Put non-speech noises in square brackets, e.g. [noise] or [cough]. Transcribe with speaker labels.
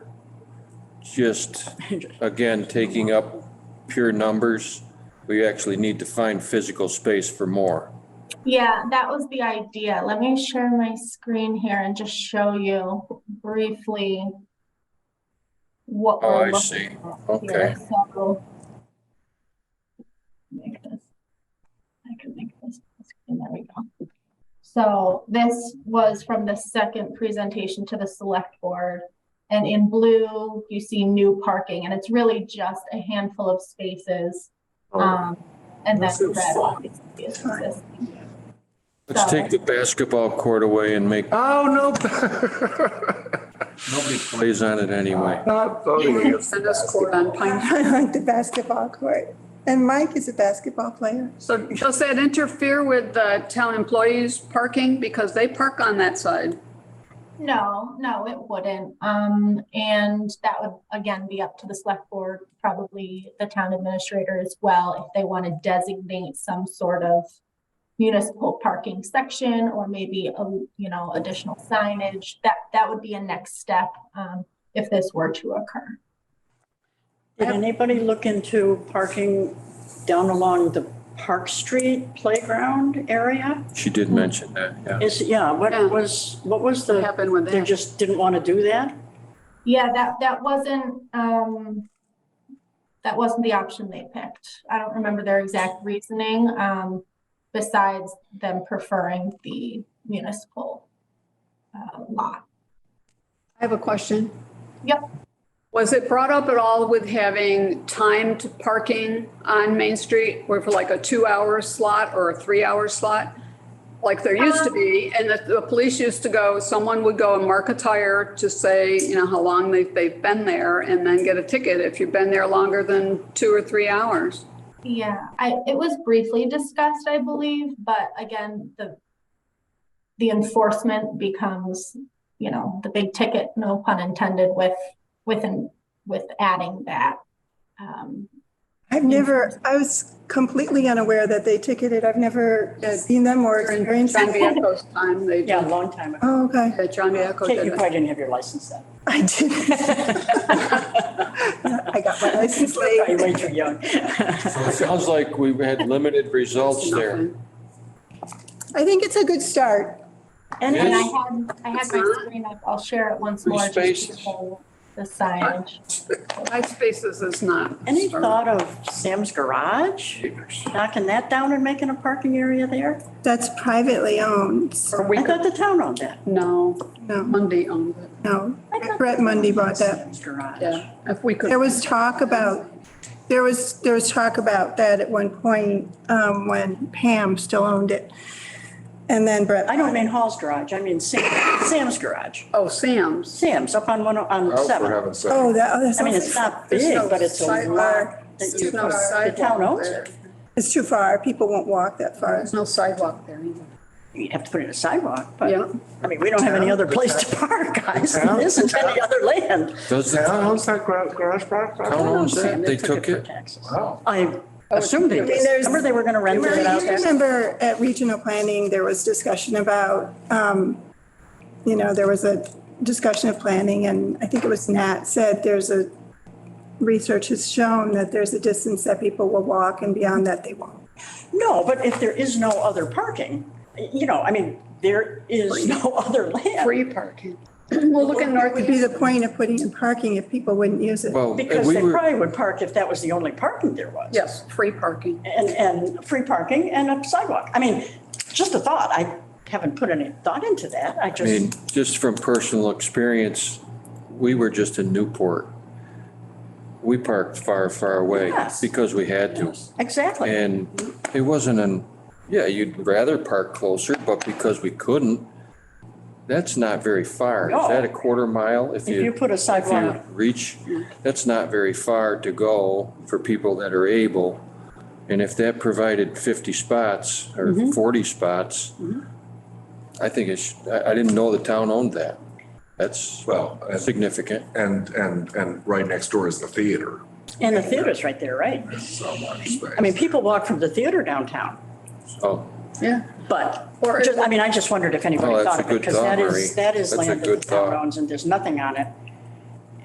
Speaker 1: just, again, taking up pure numbers. We actually need to find physical space for more.
Speaker 2: Yeah, that was the idea. Let me share my screen here and just show you briefly what
Speaker 1: Oh, I
Speaker 2: we're looking
Speaker 1: see.
Speaker 2: at
Speaker 1: Okay.
Speaker 2: here. So make this. I can make this. And there we go. So this was from the second presentation to the select board. And in blue, you see new parking, and it's really just a handful of spaces.
Speaker 1: Oh.
Speaker 2: Um, and that's
Speaker 3: This is
Speaker 2: red.
Speaker 3: fun.
Speaker 2: obviously, is consistent.
Speaker 1: Let's take the basketball court away and make,
Speaker 3: Oh, no. [laughs]
Speaker 1: nobody plays on it anyway.
Speaker 3: Not voting.
Speaker 4: It's the discord on Pine.
Speaker 5: I like the basketball court. And Mike is a basketball player.
Speaker 4: So does that interfere with the town employees parking? Because they park on that side.
Speaker 2: No, no, it wouldn't. Um, and that would again be up to the select board, probably the town administrator as well, if they want to designate some sort of municipal parking section or maybe a, you know, additional signage. That, that would be a next step, um, if this were to occur.
Speaker 6: Did anybody look into parking down along the Park Street playground area?
Speaker 1: She did mention that, yeah.
Speaker 6: Is, yeah, what
Speaker 4: Yeah.
Speaker 6: was, what was
Speaker 4: What
Speaker 6: the,
Speaker 4: happened with
Speaker 6: they
Speaker 4: that?
Speaker 6: just didn't want to do that?
Speaker 2: Yeah, that, that wasn't, um, that wasn't the option they picked. I don't remember their exact reasoning, um, besides them preferring the municipal uh, lot.
Speaker 4: I have a question.
Speaker 2: Yep.
Speaker 4: Was it brought up at all with having timed parking on Main Street or for like a two-hour slot or a three-hour slot? Like there used to be, and the, the police used to go, someone would go and mark a tire to say, you know, how long they've, they've been there and then get a ticket if you've been there longer than two or three hours.
Speaker 2: Yeah, I, it was briefly discussed, I believe, but again, the the enforcement becomes, you know, the big ticket, no pun intended, with, with, with adding that. Um,
Speaker 5: I've never, I was completely unaware that they ticketed. I've never uh, seen them or
Speaker 4: During
Speaker 5: experienced
Speaker 4: John
Speaker 5: them.
Speaker 6: [laughs]
Speaker 4: Vieco's time, they,
Speaker 6: Yeah, a
Speaker 4: did-
Speaker 6: long time ago.
Speaker 5: Oh, okay. [laughs]
Speaker 4: yeah, John Vieco
Speaker 6: Kate,
Speaker 4: did
Speaker 6: You
Speaker 4: it.
Speaker 6: probably didn't have your license then. [laughs]
Speaker 5: I did. [laughs] I got my license
Speaker 6: Probably
Speaker 5: late.
Speaker 6: way too young.
Speaker 1: So it Sounds like we had limited results there.
Speaker 5: I think it's a good start.
Speaker 6: And
Speaker 2: And I
Speaker 1: Yes.
Speaker 2: had, I had my screen up, I'll share it once
Speaker 1: Free
Speaker 2: more. just to
Speaker 1: spaces.
Speaker 2: show The signage.
Speaker 4: Five spaces is not.
Speaker 6: any thought of Sam's Garage? Knocking that down and making a parking area there?
Speaker 5: That's privately owned.
Speaker 4: Or we
Speaker 6: I
Speaker 4: could-
Speaker 6: thought the town owned that.
Speaker 4: No,
Speaker 5: No,
Speaker 4: Monday owned it,
Speaker 5: no.
Speaker 6: I thought
Speaker 5: Brett Mundy bought that.
Speaker 6: Sam's Garage.
Speaker 4: yeah, if we could.
Speaker 5: There was talk about, there was, there was talk about that at one point um, when Pam still owned it. And then Brett.
Speaker 6: I don't mean Hall's Garage, I mean Sam, Sam's Garage.
Speaker 4: Oh, Sam's.
Speaker 6: Sam's up on one, oh- on
Speaker 3: Oh, for
Speaker 6: seven.
Speaker 3: heaven's sake.
Speaker 5: Oh, that, oh, that's.
Speaker 6: I mean, it's not
Speaker 4: There's
Speaker 6: big,
Speaker 4: no
Speaker 6: but it's a
Speaker 4: sidewalk.
Speaker 6: lot. that you-
Speaker 4: There's no
Speaker 6: The town
Speaker 4: sidewalk
Speaker 6: owns
Speaker 4: there.
Speaker 6: it.
Speaker 5: It's too far. People won't walk that far.
Speaker 4: There's no sidewalk there either.
Speaker 6: You'd have to put in a sidewalk,
Speaker 4: Yeah.
Speaker 6: but, I mean, we don't have any other place to park, guys. There isn't any other land.
Speaker 1: Does the
Speaker 3: Town
Speaker 1: town
Speaker 3: owns that gra- garage park?
Speaker 1: town
Speaker 4: Oh,
Speaker 1: owns that?
Speaker 6: Sam,
Speaker 1: They took
Speaker 6: for
Speaker 1: it?
Speaker 6: taxes.
Speaker 3: Wow.
Speaker 6: I assumed they
Speaker 5: mean,
Speaker 6: did.
Speaker 5: there's-
Speaker 6: Remember they were gonna rent it out
Speaker 5: I
Speaker 6: there?
Speaker 5: remember at regional planning, there was discussion about, um, you know, there was a discussion of planning and I think it was Nat said there's a, research has shown that there's a distance that people will walk and beyond that they won't.
Speaker 6: No, but if there is no other parking, you know, I mean, there is no other land.
Speaker 4: Free parking. [clears throat] We'll look at
Speaker 5: It would be
Speaker 4: Northeast.
Speaker 5: the point of putting in parking if people wouldn't use it.
Speaker 1: Well,
Speaker 6: Because
Speaker 1: we
Speaker 6: they
Speaker 1: were,
Speaker 6: probably would park if that was the only parking there was.
Speaker 4: Yes, free parking.
Speaker 6: And, and free parking and a sidewalk. I mean, just a thought. I haven't put any thought into that. I
Speaker 1: I mean,
Speaker 6: just,
Speaker 1: just from personal experience, we were just in Newport. We parked far, far away
Speaker 6: Yes.
Speaker 1: because we had to.
Speaker 6: exactly.
Speaker 1: And it wasn't an, yeah, you'd rather park closer, but because we couldn't, that's not very far. Is
Speaker 6: No.
Speaker 1: that a quarter mile? If
Speaker 6: If you
Speaker 1: you,
Speaker 6: put a
Speaker 1: if you
Speaker 6: sidewalk,
Speaker 1: reach, that's not very far to go for people that are able. And if that provided fifty spots or
Speaker 6: Mm-hmm.
Speaker 1: forty spots, I think it's, I, I didn't know the town owned that. That's
Speaker 3: Well, and-
Speaker 1: significant.
Speaker 3: and, and, and right next door is the theater,
Speaker 6: and the theater's right there, right?
Speaker 3: so much space.
Speaker 6: I mean, people walk from the theater downtown,
Speaker 1: Oh,
Speaker 4: Yeah.
Speaker 6: but,
Speaker 4: Or-
Speaker 6: just- I mean, I just wondered if anybody
Speaker 1: Oh, that's
Speaker 6: thought
Speaker 1: a
Speaker 6: of it.
Speaker 1: good
Speaker 6: Because
Speaker 1: thought,
Speaker 6: that
Speaker 1: Marie.
Speaker 6: is, that is
Speaker 1: That's a
Speaker 6: land that the
Speaker 1: good
Speaker 6: town
Speaker 1: thought.
Speaker 6: owns and there's nothing on it.